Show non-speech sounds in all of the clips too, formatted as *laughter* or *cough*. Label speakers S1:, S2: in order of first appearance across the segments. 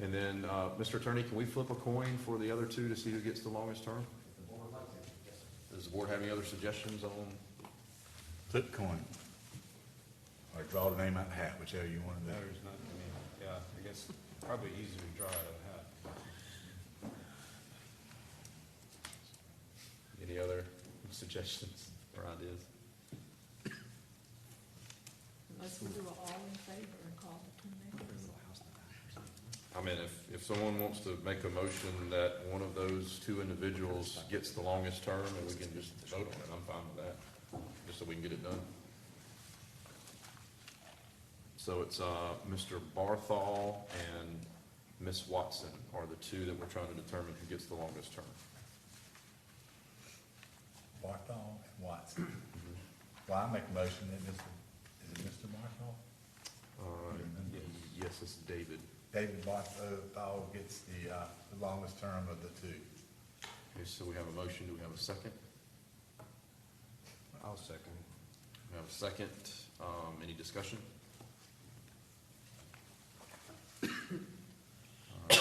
S1: And then, uh, Mr. Attorney, can we flip a coin for the other two to see who gets the longest term? Does the board have any other suggestions on,
S2: Flip coin. Or draw the name out of the hat, whichever you want to do.
S3: Matters not to me, yeah, I guess probably easier to draw out of a hat.
S1: any other suggestions or ideas?
S4: Unless we do a all in favor and call the two names.
S1: I mean, if, if someone wants to make a motion that one of those two individuals gets the longest term, and we can just vote on it, I'm fine with that, just so we can get it done. So it's, uh, Mr. Barthol and Ms. Watson are the two that we're trying to determine who gets the longest term.
S2: Barthol and Watson. Well, I make a motion that Mr., is it Mr. Barthol?
S1: Uh, y- yes, it's David.
S2: David Barthol gets the, uh, the longest term of the two.
S1: Okay, so we have a motion, do we have a second?
S3: I'll second.
S1: We have a second, um, any discussion? Uh, *coughs*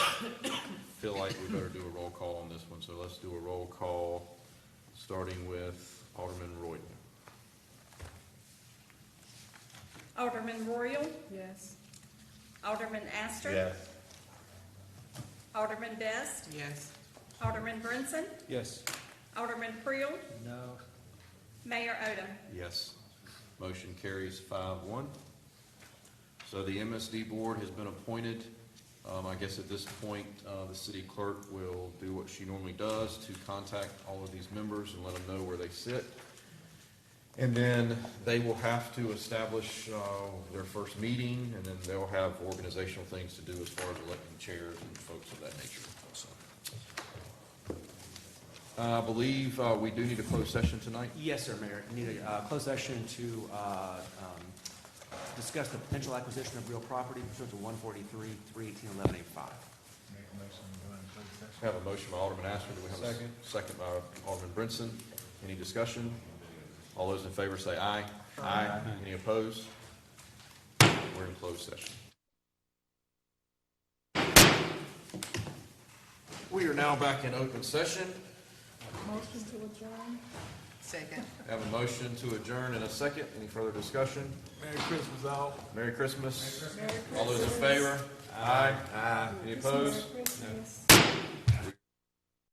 S1: Feel like we better do a roll call on this one, so let's do a roll call, starting with Alderman Royal.
S5: Alderman Royal,
S4: Yes.
S5: Alderman Astor.
S2: Yes.
S5: Alderman Best,
S6: Yes.
S5: Alderman Brinson,
S3: Yes.
S5: Alderman Creel,
S3: No.
S5: Mayor Odom.
S1: Yes. Motion carries five one. So the MSD board has been appointed. Um, I guess at this point, uh, the city clerk will do what she normally does to contact all of these members and let them know where they sit. And then they will have to establish, uh, their first meeting, and then they'll have organizational things to do as far as electing chairs and folks of that nature. So, I believe, uh, we do need a closed session tonight.
S7: Yes, sir, Mayor. Need a uh, closed session to uh, um, discuss the potential acquisition of real property pursuant to 143, 318, 1185.
S2: Make a motion to go into closed session.
S1: We have a motion by Alderman Astor, do we have a second? Second by Alderman Brinson, any discussion? All those in favor say aye. Aye. Any opposed? We're in closed session. We are now back in open session,
S4: Motion to adjourn?
S6: Second.
S1: have a motion to adjourn in a second, any further discussion? Merry Christmas all. Merry Christmas. All those in favor? Aye. Aye. Any opposed?
S4: Merry Christmas.